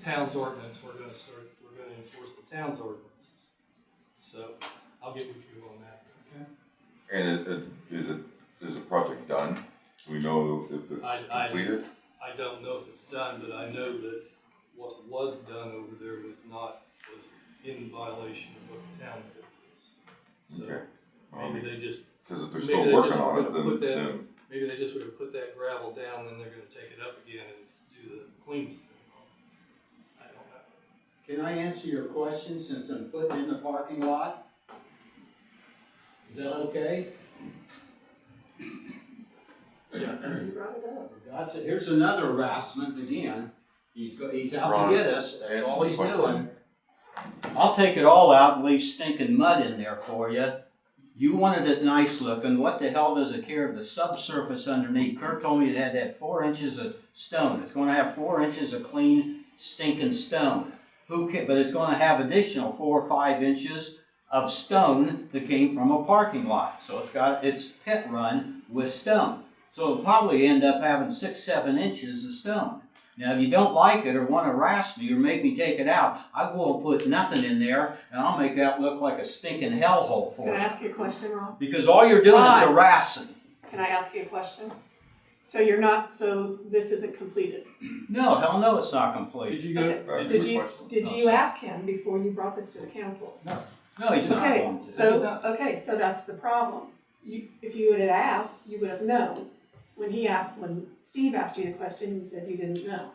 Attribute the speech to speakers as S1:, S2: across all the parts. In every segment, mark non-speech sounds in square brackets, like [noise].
S1: town's ordinance, we're gonna start, we're gonna enforce the town's ordinances. So I'll get with you on that, okay?
S2: And it, it, is it, is the project done? Do we know if it's
S1: I- I-
S2: completed?
S1: I don't know if it's done, but I know that what was done over there was not, was in violation of what the town code is. So
S2: Okay. Well,
S1: maybe they just,
S2: Um, Cause if they're
S1: maybe
S2: still
S1: they
S2: working
S1: just
S2: on it,
S1: wanna put
S2: then,
S1: that-
S2: then,
S1: maybe they just would have put that gravel down, then they're gonna take it up again and do the clean stuff. I don't know.
S3: Can I answer your question since I'm putting in the parking lot? Is that okay?
S4: You brought it up.
S3: That's, here's another harassment again. He's go, he's out
S2: Ron,
S3: to get us, that's
S2: answer
S3: all
S2: the
S3: he's
S2: question.
S3: doing. I'll take it all out and leave stinking mud in there for you. You wanted it nice looking, what the hell does it care of the subsurface underneath? Kirk told me it had that four inches of stone, it's gonna have four inches of clean stinking stone. Who ca, but it's gonna have additional four or five inches of stone that came from a parking lot. So it's got its pit run with stone. So it'll probably end up having six, seven inches of stone. Now, if you don't like it or want to harass me or make me take it out, I won't put nothing in there and I'll make that look like a stinking hellhole for
S4: Can I
S3: you.
S4: ask you a question, Ron?
S3: Because all you're doing is
S4: Why?
S3: harassing.
S4: Can I ask you a question? So you're not, so this isn't completed.
S3: No, hell no, it's not complete.
S1: Did you go?
S2: Okay.
S4: Did you,
S2: Question.
S4: did you ask him before you brought this to the council?
S3: No, he's not
S4: Okay,
S3: going to.
S4: So, okay, so that's the problem. You, if you would have asked, you would have known. When he asked, when Steve asked you the question, you said you didn't know.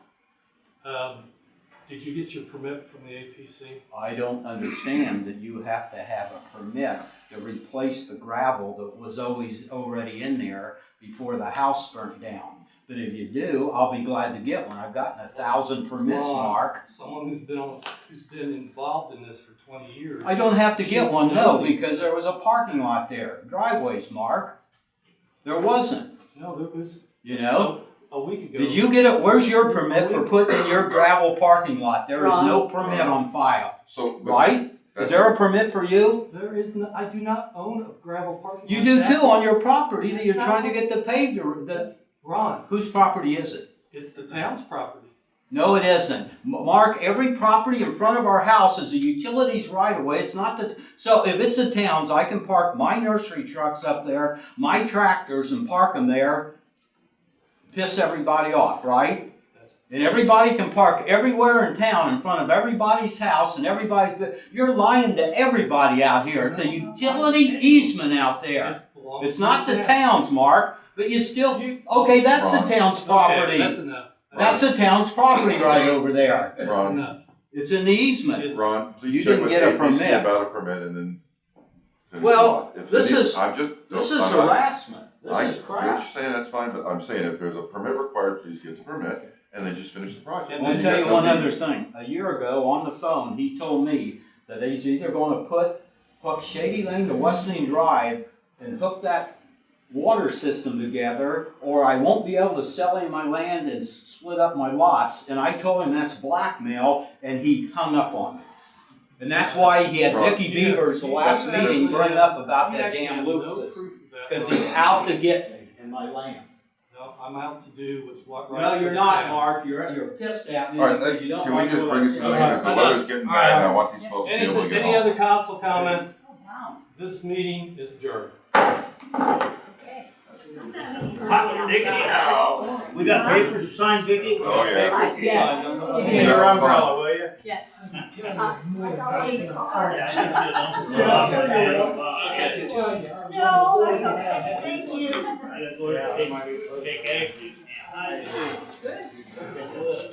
S1: Um, did you get your permit from the APC?
S3: I don't understand that you have to have a permit to replace the gravel that was always already in there before the house burnt down. But if you do, I'll be glad to get one. I've gotten a thousand permits,
S1: Wrong.
S3: Mark.
S1: Someone who's been on, who's been involved in this for twenty years.
S3: I don't have to get one, no, because there was a parking lot there, driveways, Mark. There wasn't,
S1: No, there was,
S3: you know?
S1: a week ago.
S3: Did you get it? Where's your permit for putting in your gravel parking lot? There is no permit on file,
S2: so. but
S3: right? Is
S2: that's-
S3: there a permit for you?
S1: There is no, I do not own a gravel parking lot.
S3: You do too
S1: That's-
S3: on your property that you're
S1: That's
S3: trying to
S1: not-
S3: get the paved, or the,
S1: That's, Ron,
S3: whose property is it?
S1: it's the town's property.
S3: No, it isn't. M- Mark, every property in front of our house is a utilities right of way. It's not the, so if it's the town's, I can park my nursery trucks up there, my tractors and park them there. Piss everybody off, right?
S1: That's-
S3: And everybody can park everywhere in town in front of everybody's house and everybody's, bu- you're lying to everybody out here. It's a
S1: No, no, no.
S3: utility easement out there.
S1: It belongs
S3: It's
S1: to
S3: not the town's, Mark, but you still,
S1: You-
S3: okay, that's
S2: Wrong.
S3: the town's
S1: Okay,
S3: property.
S1: That's enough.
S3: That's the town's property right over there.
S1: That's
S2: Ron.
S1: enough.
S3: It's in the easement.
S1: It's-
S2: Ron,
S3: You
S2: please check
S3: didn't
S2: with
S3: get a
S2: APC
S3: permit.
S2: about a permit and then. finish
S3: Well,
S2: it. If it
S3: this
S2: is-
S3: is-
S2: I'm just.
S3: This
S2: I'm
S3: is
S2: not-
S3: harassment.
S2: I,
S3: This is
S2: what
S3: crap.
S2: you're saying, that's fine, but I'm saying if there's a permit required, please get the permit and then just finish the project.
S1: And
S3: I'll
S1: then
S3: tell you
S2: got no
S3: one
S2: need.
S3: other thing. A year ago, on the phone, he told me that he's either gonna put, hook Shady Lane to Wesleyan Drive and hook that water system together, or I won't be able to sell any of my land and s- split up my lots. And I told him that's blackmail, and he hung up on me. And that's why he had
S2: Right.
S3: Vicky
S1: Yeah.
S3: Beavers the last
S1: That's-
S3: meeting bring up about
S1: You
S3: that
S1: actually
S3: damn
S1: have
S3: loop
S1: no
S3: system.
S1: proof of that,
S3: Cause
S1: Ron.
S3: he's out to get me and my land.
S1: No, I'm out to do what's what right.
S3: No,
S1: for
S3: you're
S1: the
S3: not,
S1: town.
S3: Mark. You're, you're pissed at me
S2: All right,
S3: because
S2: let-
S3: you don't
S2: can we
S3: like
S2: just
S3: what
S2: bring
S3: I
S2: it to the,
S3: said.
S1: Okay.
S2: because the weather's getting bad and I want these folks to be able to
S1: Anything,
S2: get
S1: any
S2: home.
S1: other council comment? This meeting is adjourned.
S5: Hot diggity now. We got papers to sign, Vicky?
S2: Oh, yeah.
S5: Yes.
S1: Okay.
S2: Get your umbrella,
S5: will you?
S6: Yes.
S5: [laughs]
S1: [laughs]
S5: No, that's okay, thank you.
S6: Good.